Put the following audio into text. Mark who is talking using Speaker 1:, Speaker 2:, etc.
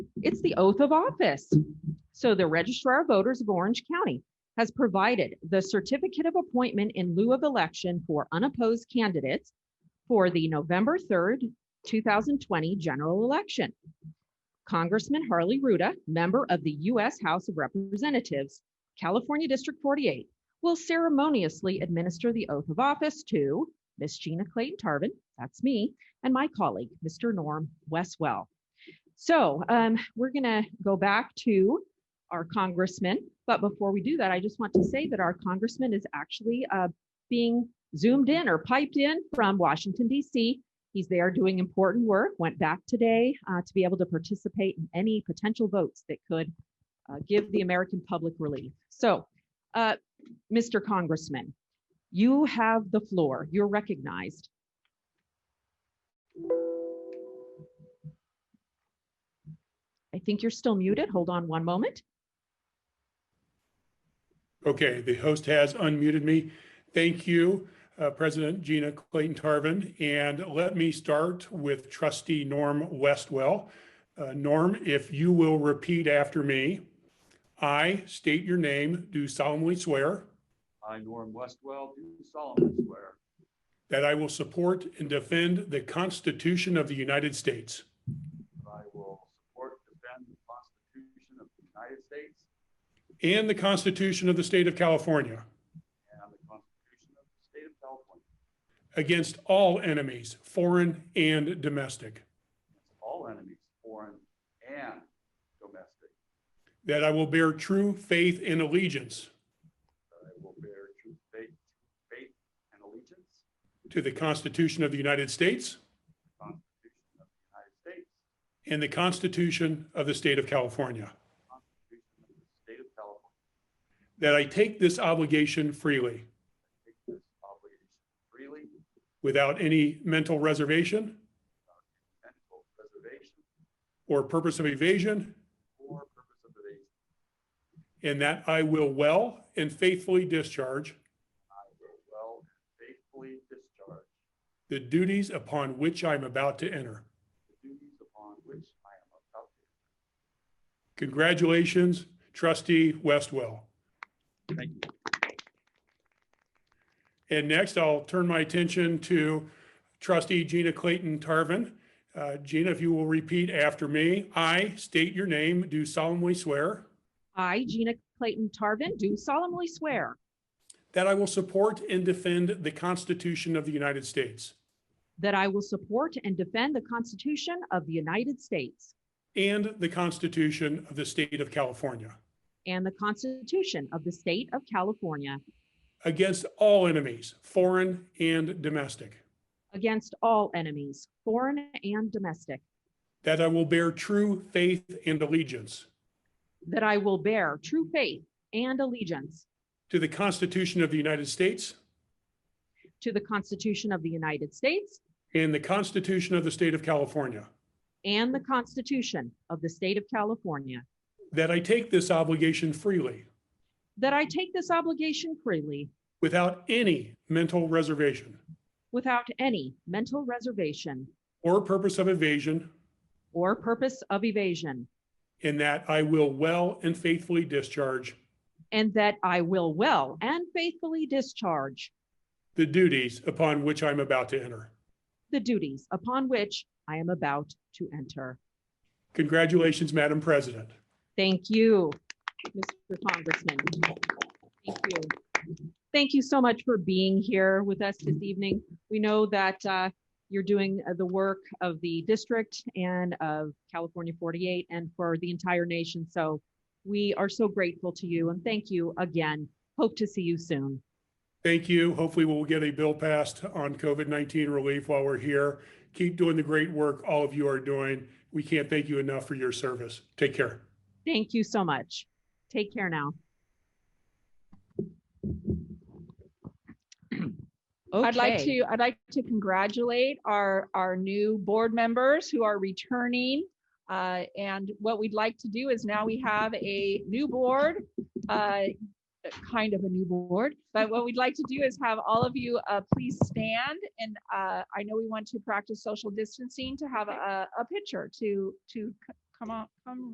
Speaker 1: It's the oath of office. So the registrar of voters of Orange County has provided the certificate of appointment in lieu of election for unopposed candidates for the November 3rd, 2020 general election. Congressman Harley Ruda, member of the U.S. House of Representatives, California District 48, will ceremoniously administer the oath of office to Miss Gina Clayton Tarvin, that's me, and my colleague, Mr. Norm Westwell. So um, we're going to go back to our congressman. But before we do that, I just want to say that our congressman is actually uh, being zoomed in or piped in from Washington, D.C. He's there doing important work, went back today uh, to be able to participate in any potential votes that could uh, give the American public relief. So, uh, Mr. Congressman, you have the floor. You're recognized. I think you're still muted. Hold on one moment.
Speaker 2: Okay, the host has unmuted me. Thank you, uh, President Gina Clayton Tarvin. And let me start with trustee Norm Westwell. Uh, Norm, if you will repeat after me. I state your name, do solemnly swear
Speaker 3: I, Norm Westwell, do solemnly swear
Speaker 2: that I will support and defend the Constitution of the United States
Speaker 3: that I will support and defend the Constitution of the United States
Speaker 2: and the Constitution of the State of California
Speaker 3: and the Constitution of the State of California
Speaker 2: against all enemies, foreign and domestic.
Speaker 3: against all enemies, foreign and domestic,
Speaker 2: That I will bear true faith and allegiance
Speaker 3: that I will bear true faith, faith and allegiance to
Speaker 2: To the Constitution of the United States
Speaker 3: the Constitution of the United States,
Speaker 2: and the Constitution of the State of California.
Speaker 3: the Constitution of the State of California,
Speaker 2: That I take this obligation freely,
Speaker 3: take this obligation freely
Speaker 2: without any mental reservation
Speaker 3: and for preservation
Speaker 2: or purpose of evasion,
Speaker 3: or purpose of evasion.
Speaker 2: and that I will well and faithfully discharge
Speaker 3: I will well and faithfully discharge
Speaker 2: the duties upon which I'm about to enter.
Speaker 3: the duties upon which I am about to
Speaker 2: Congratulations, trustee Westwell.
Speaker 3: Thank
Speaker 2: you. And next, I'll turn my attention to trustee Gina Clayton Tarvin. Uh, Gina, if you will repeat after me, I state your name, do solemnly swear
Speaker 1: I, Gina Clayton Tarvin, do solemnly swear
Speaker 2: that I will support and defend the Constitution of the United States
Speaker 1: that I will support and defend the Constitution of the United States
Speaker 2: and the Constitution of the State of California
Speaker 1: and the Constitution of the State of California
Speaker 2: against all enemies, foreign and domestic.
Speaker 1: against all enemies, foreign and domestic,
Speaker 2: That I will bear true faith and allegiance
Speaker 1: that I will bear true faith and allegiance
Speaker 2: to the Constitution of the United States
Speaker 1: to the Constitution of the United States
Speaker 2: and the Constitution of the State of California.
Speaker 1: and the Constitution of the State of California,
Speaker 2: That I take this obligation freely,
Speaker 1: that I take this obligation freely
Speaker 2: without any mental reservation
Speaker 1: without any mental reservation
Speaker 2: or purpose of evasion,
Speaker 1: or purpose of evasion,
Speaker 2: and that I will well and faithfully discharge
Speaker 1: and that I will well and faithfully discharge
Speaker 2: the duties upon which I'm about to enter.
Speaker 1: the duties upon which I am about to enter.
Speaker 2: Congratulations, Madam President.
Speaker 1: Thank you, Mr. Congressman. Thank you. Thank you so much for being here with us this evening. We know that uh, you're doing uh, the work of the district and of California 48 and for the entire nation. So we are so grateful to you and thank you again. Hope to see you soon.
Speaker 2: Thank you. Hopefully, we'll get a bill passed on COVID 19 relief while we're here. Keep doing the great work all of you are doing. We can't thank you enough for your service. Take care.
Speaker 1: Thank you so much. Take care now.
Speaker 4: I'd like
Speaker 1: Okay.
Speaker 4: to, I'd like to congratulate our, our new board members who are returning. Uh, And what we'd like to do is now we have a new board, uh, kind of a new board. But what we'd like to do is have all of you uh, please stand. And uh, I know we want to practice social distancing to have a, a picture to, to c- come on, come